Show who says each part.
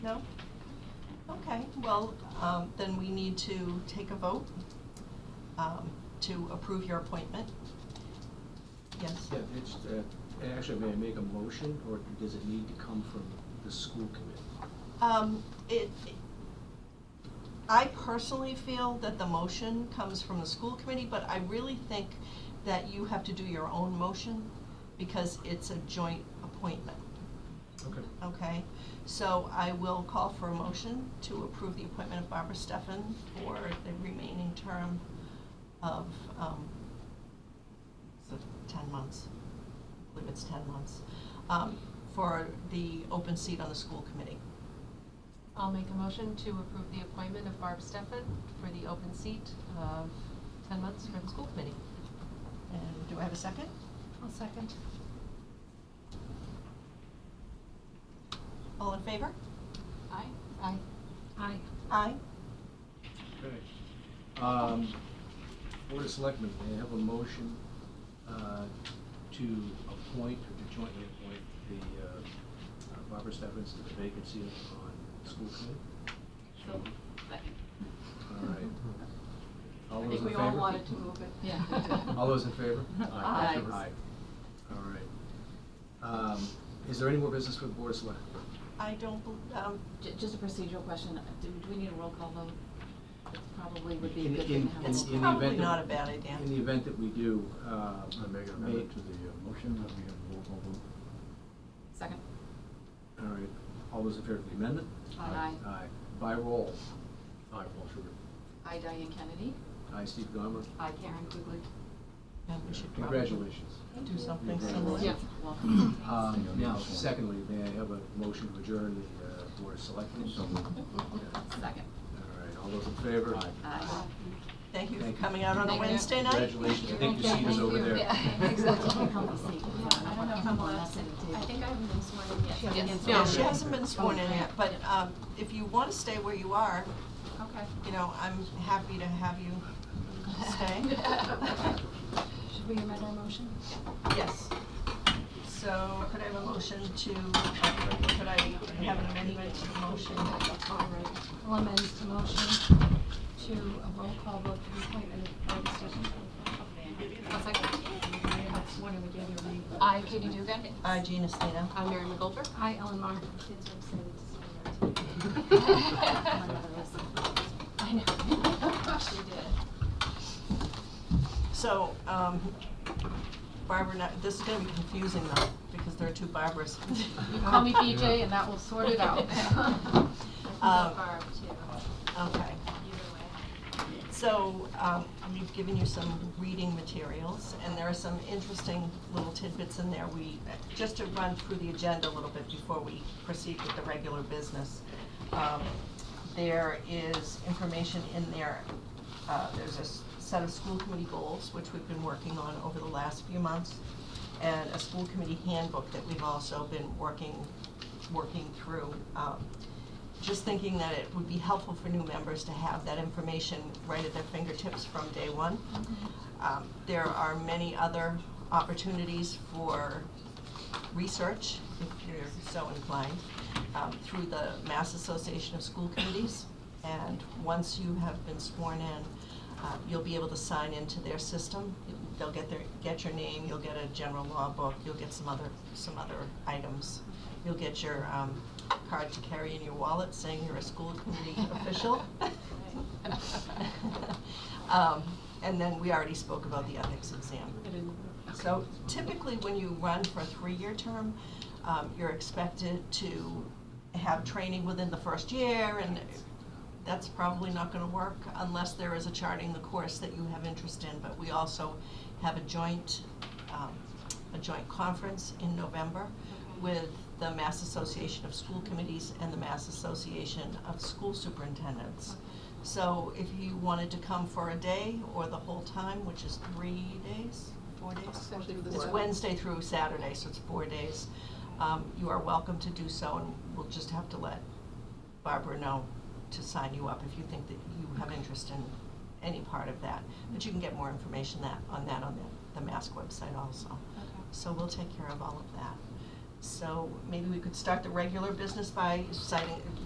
Speaker 1: No? Okay, well, um, then we need to take a vote um, to approve your appointment. Yes?
Speaker 2: Yeah, it's, uh, actually, may I make a motion, or does it need to come from the school committee?
Speaker 1: Um, it, I personally feel that the motion comes from the school committee, but I really think that you have to do your own motion because it's a joint appointment,
Speaker 2: Okay.
Speaker 1: okay? So I will call for a motion to approve the appointment of Barbara Steffen for the remaining term of, um, so ten months, I believe it's ten months, um, for the open seat on the school committee.
Speaker 3: I'll make a motion to approve the appointment of Barb Steffen for the open seat of ten months for the school committee.
Speaker 1: And do I have a second?
Speaker 3: I'll second.
Speaker 1: All in favor?
Speaker 3: Aye? Aye. Aye.
Speaker 1: Aye.
Speaker 2: Okay. Um, Board of Selectmen, may I have a motion, uh, to appoint, or to jointly appoint the, uh, Barbara Steffens to the vacancy on the school committee?
Speaker 3: So,
Speaker 2: All right. All
Speaker 3: I
Speaker 2: those
Speaker 3: think
Speaker 2: in
Speaker 3: we all
Speaker 2: favor?
Speaker 3: wanted to move it. Yeah.
Speaker 2: All those in favor?
Speaker 3: Aye.
Speaker 2: Aye. All right. Um, is there any more business for the Board of Selectmen?
Speaker 1: I don't, bel- um,
Speaker 4: Ju- Just a procedural question, do, do we need a roll call vote? It Probably would be a
Speaker 2: In-
Speaker 4: good
Speaker 2: in-
Speaker 4: thing to have a
Speaker 2: in- in the
Speaker 4: roll call.
Speaker 1: Probably
Speaker 2: event that-
Speaker 1: not a bad idea.
Speaker 2: In the event that we do, uh.
Speaker 5: I make an
Speaker 2: may-
Speaker 5: amendment to the uh, motion that we have roll call vote.
Speaker 4: Second.
Speaker 2: All right, all those in favor of the amendment?
Speaker 4: Aye.
Speaker 2: Aye. By roll. Aye, Paul Sugar.
Speaker 4: I, Diane Kennedy.
Speaker 2: Aye, Steve Gomer.
Speaker 4: I, Karen Quigley.
Speaker 1: yeah, we should probably
Speaker 2: Congratulations.
Speaker 1: do something
Speaker 2: You're very
Speaker 1: similar.
Speaker 2: welcome.
Speaker 4: Yeah, welcome.
Speaker 2: Um,
Speaker 5: Thank you.
Speaker 2: now, secondly, may I have a motion to adjourn the, uh, Board of Selectmen?
Speaker 5: So moved.
Speaker 2: Yeah.
Speaker 4: Second.
Speaker 2: All right, all those in favor?
Speaker 5: Aye.
Speaker 4: Aye.
Speaker 1: Thank you for
Speaker 2: Thank you.
Speaker 1: coming out on a
Speaker 4: Thank you.
Speaker 1: Wednesday night.
Speaker 2: Congratulations, I think the seat is over there.
Speaker 4: Yeah, exactly.
Speaker 3: Yeah, I don't know if I'm allowed to, I think I haven't been sworn in yet.
Speaker 4: Yes.
Speaker 3: Yes.
Speaker 1: Yeah,
Speaker 4: No.
Speaker 1: she hasn't been sworn in
Speaker 4: Okay.
Speaker 1: yet, but, um, if you wanna stay where you are,
Speaker 3: Okay.
Speaker 1: you know, I'm happy to have you stay.
Speaker 3: Should we amend our motion?
Speaker 1: Yes. So could I have a motion to, could I have an amendment to the motion?
Speaker 3: All right. I'll amend the motion to a roll call vote for the appointment of Barb Steffen. I'll second. One of the other name.
Speaker 4: I, Katie Dugan.
Speaker 1: Uh, Gina Stino.
Speaker 4: I'm Mary McGolter.
Speaker 3: I, Ellen Mar.
Speaker 4: I know. She did.
Speaker 1: So, um, Barbara, now- this is gonna be confusing though, because there are two Barbaras.
Speaker 3: Call me BJ and that will sort it out.
Speaker 1: Um,
Speaker 6: Barb too,
Speaker 1: Okay,
Speaker 6: either way.
Speaker 1: so, um, we've given you some reading materials, and there are some interesting little tidbits in there. We, just to run through the agenda a little bit before we proceed with the regular business. Um, there is information in there, uh, there's a s- set of school committee goals, which we've been working on over the last few months, and a school committee handbook that we've also been working, working through. Um, just thinking that it would be helpful for new members to have that information right at their fingertips from day one. Um, There are many other opportunities for research, if you're so inclined, um, through the Mass Association of School Committees. And once you have been sworn in, uh, you'll be able to sign into their system. They'll get their, get your name, you'll get a general law book, you'll get some other, some other items. You'll get your um, card to carry in your wallet saying you're a school committee official. Um, And then we already spoke about the ethics exam. So typically, when you run for a three-year term, um, you're expected to have training within the first year, and that's probably not gonna work unless there is a charting the course that you have interest in. But we also have a joint, um, a joint conference in November with the Mass Association of School Committees and the Mass Association of School Superintendents. So if you wanted to come for a day or the whole time, which is three days, four days? It's Wednesday through Saturday, so it's four days. Um, you are welcome to do so, and we'll just have to let Barbara know to sign you up if you think that you have interest in any part of that. But you can get more information that, on that on the, the Mask website also. So we'll take care of all of that. So maybe we could start the regular business by citing,